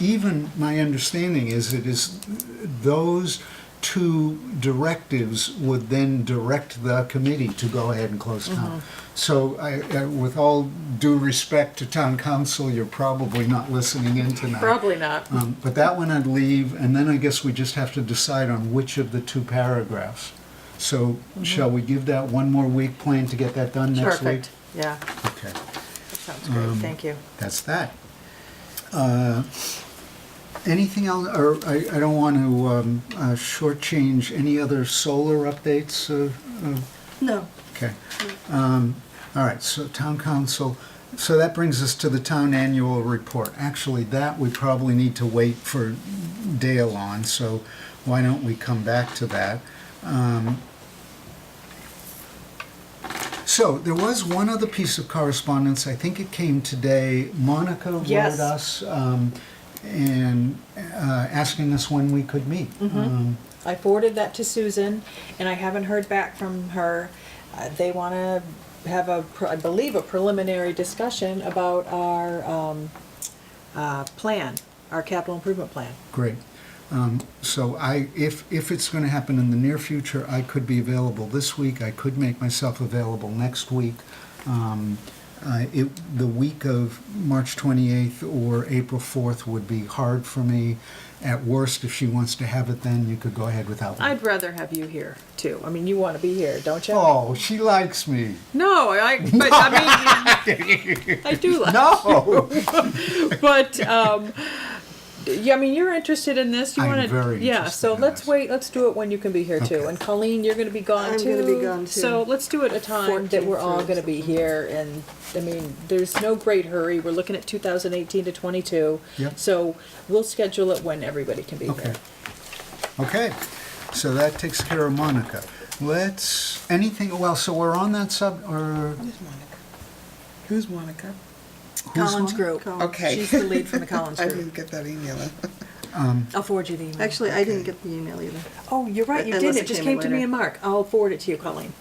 Even my understanding is it is those two directives would then direct the committee to go ahead and close town. Mm-hmm. So I, I- with all due respect to town council, you're probably not listening in tonight. Probably not. Um, But that one I'd leave, and then I guess we just have to decide on which of the two paragraphs. So Mm-hmm. shall we give that one more week, plan to get that done next week? Um, Perfect. Yeah, that Okay, sounds great. Thank you. that's that. Uh, Anything else, or I I don't want to um, uh, shortchange any other solar updates? uh, uh, No. Okay. Um, All right, so town council, so that brings us to the town annual report. Actually, that we probably need to wait for Dale on, so why don't we come back to that? Um, So there was one other piece of correspondence, I think it came today. Monica wrote Yes. us um, and uh, asking us when we could meet. Um, I forwarded that to Susan, and I haven't heard back from her. Uh, They want to have a, pre- I believe, a preliminary discussion about our um, uh, plan, our capital improvement plan. Great. Um, So I, if, if it's going to happen in the near future, I could be available this week, I could make myself available next week. Um, I- It, the week of March 28th or April 4th would be hard for me. At worst, if she wants to have it then, you could go ahead without me. I'd rather have you here, too. I mean, you want to be here, don't you? Oh, she likes me. No, I, but I mean, I do like No! But, um, yeah, I mean, you're interested in this, you I'm wanna. very Yeah, interested so in let's this. wait, let's do it when you can be here too, Okay. and Colleen, you're gonna be gone I'm too. gonna be gone, too. So let's do it a time that we're all 14th or gonna be here, and, I mean, there's no great hurry, we're looking at two thousand eighteen to twenty-two. Yep. So we'll schedule it when everybody can be Okay. here. Okay, so that takes care of Monica. Let's, anything, well, so we're on that sub, or Who's Monica? Who's Monica? who's Collins on? Group. Collins. Okay. She's the lead from the Collins I Group. didn't get that email. I'll forward you the email. Actually, I didn't get the email either. Oh, you're right, you Unless did, it it just came in came to me later. and Mark, I'll forward it to you, Colleen.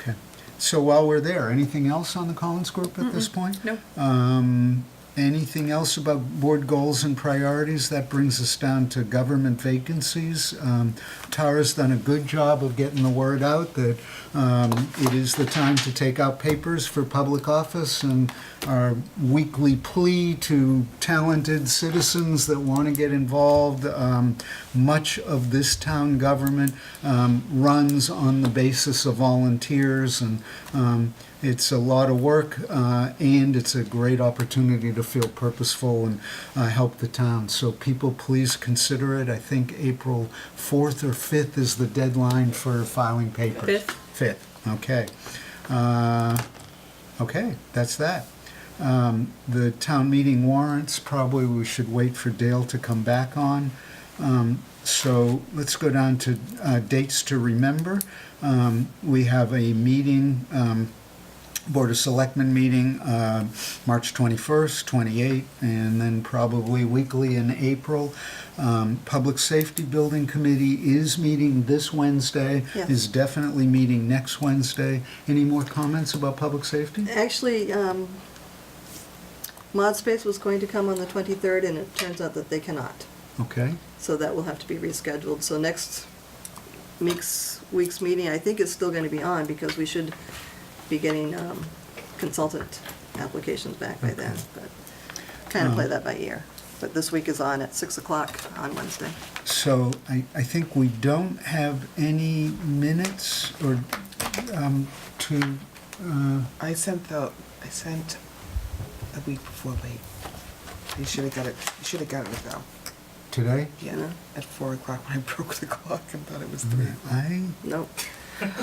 Okay. So while we're there, anything else on the Collins Group at this point? No. Um, anything else about board goals and priorities? That brings us down to government vacancies. Um, Tara's done a good job of getting the word out that um, it is the time to take out papers for public office and our weekly plea to talented citizens that want to get involved. Um, much of this town government um, runs on the basis of volunteers and um, it's a lot of work, uh, and it's a great opportunity to feel purposeful and uh, help the town. So people, please consider it. I think April 4th or 5th is the deadline for filing papers. Fifth. 5th, okay. Uh, Okay, that's that. Um, The town meeting warrants, probably we should wait for Dale to come back on. Um, So let's go down to uh, dates to remember. Um, We have a meeting um, Board of Selectmen meeting, uh, March 21st, 28th, and then probably weekly in April. Um, Public Safety Building Committee is meeting this Wednesday, Yes. is definitely meeting next Wednesday. Any more comments about public Uh, safety? Actually, um, ModSpace was going to come on the 23rd, and it turns out that they cannot. Okay, So that will have to be rescheduled. So next week's, week's meeting, I think is still going to be on, because we should be getting um, consultant applications back by then. But Kind of Uh-huh. play that by ear. But this week is on at 6 o'clock on Wednesday. so I, I think we don't have any minutes or um, to, uh, I sent the, I sent a week before late. You should have got it, you should have gotten it though. today? Yeah, Yeah. at four o'clock when I broke the clock and thought it was three. I, Nope.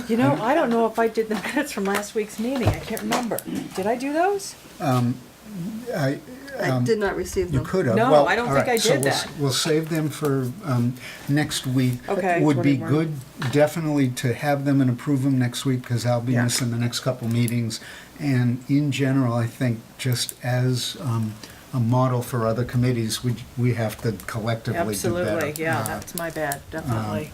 You know, I don't know if I did the minutes from last week's meeting, I can't remember. Did I do those? I, I Um, did not receive You them. could have. No, Well, I don't all think right, I so did we'll s- that. We'll save them for um, next week. Okay. Would be 21. good, definitely, to have them and approve them next week, because I'll be Yeah. missing the next couple meetings. And in general, I think, just as um, a model for other committees, we, we have to collectively do better. Absolutely, yeah, Uh, that's my bad, definitely.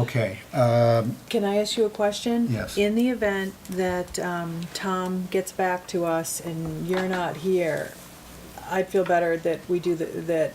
Okay, um, Can I ask you a question? Yes. In the event that um, Tom gets back to us and you're not here, I'd feel better that we do, the- that